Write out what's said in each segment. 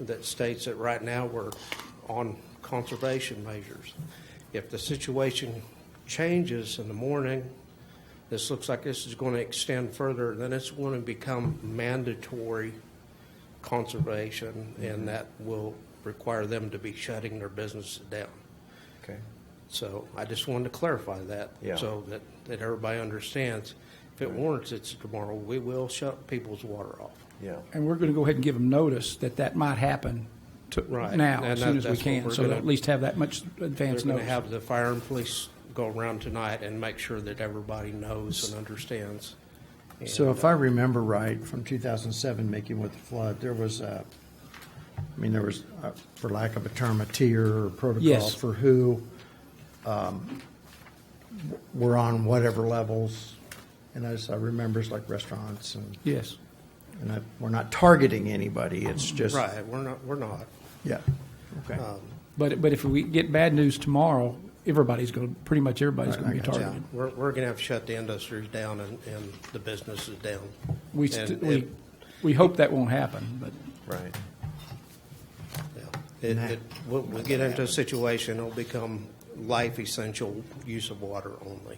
that states that right now we're on conservation measures. If the situation changes in the morning, this looks like this is going to extend further, then it's going to become mandatory conservation, and that will require them to be shutting their businesses down. Okay. So I just wanted to clarify that, Yeah. so that, that everybody understands. If it warrants it's tomorrow, we will shut people's water off. Yeah. And we're going to go ahead and give them notice that that might happen to, Right. now, And as that- soon as we that's what can, we're so they'll gonna- at least have that much They're advance going to notice. have the fire and police go around tonight and make sure that everybody knows and understands. And, So if I remember right, from 2007, making with the flood, there was a, I mean, there was, uh, for lack of a term, a tier or protocol Yes. for who um, were on whatever levels. And as I remember, it's like restaurants and, Yes. and I, we're not targeting anybody, it's just. Right, we're not, we're not. Yeah, okay. But, but if we get bad news tomorrow, everybody's going, to pretty much everybody's Right, going I to be got you. Yeah, targeted. we're, we're going to have to shut the industries down and, and the businesses down. We, And st- it- we, we hope that won't happen, but Right. yeah. It, it, we'll, we'll get into a situation, it'll become life essential use of water only.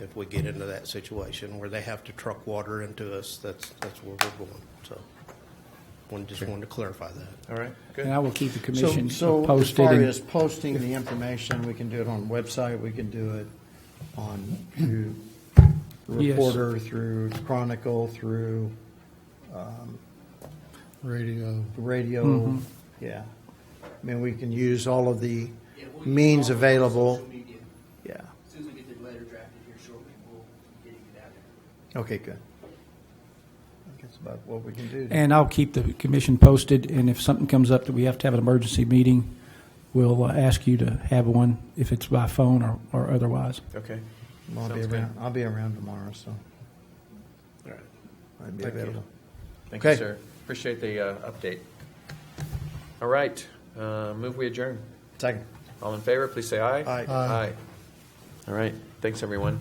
If we get into that situation where they have to truck water into us, that's, that's where we're going, so. One, just wanted to clarify that. All right. Good. and I will keep the So, commission so as posted. far and- as posting the information, we can do it on website, we can do it on through Yes. reporter, through Chronicle, through um, radio. Mm-hmm. radio, yeah. I mean, we can use all of the means available, yeah. As soon as we get the letter drafted here shortly, we'll be getting it out there. Okay, good. That's about what we can do. And I'll keep the commission posted, and if something comes up that we have to have an emergency meeting, we'll uh, ask you to have one, if it's by phone or, or otherwise. Okay. I'll be Sounds good. around, I'll be around tomorrow, so All right. I'd be Thank you. available. Thank you, Okay. sir. Appreciate the uh, update. All right. Uh, move we adjourn. Second. All in favor, please say aye. Aye. Aye. All right. Thanks, everyone.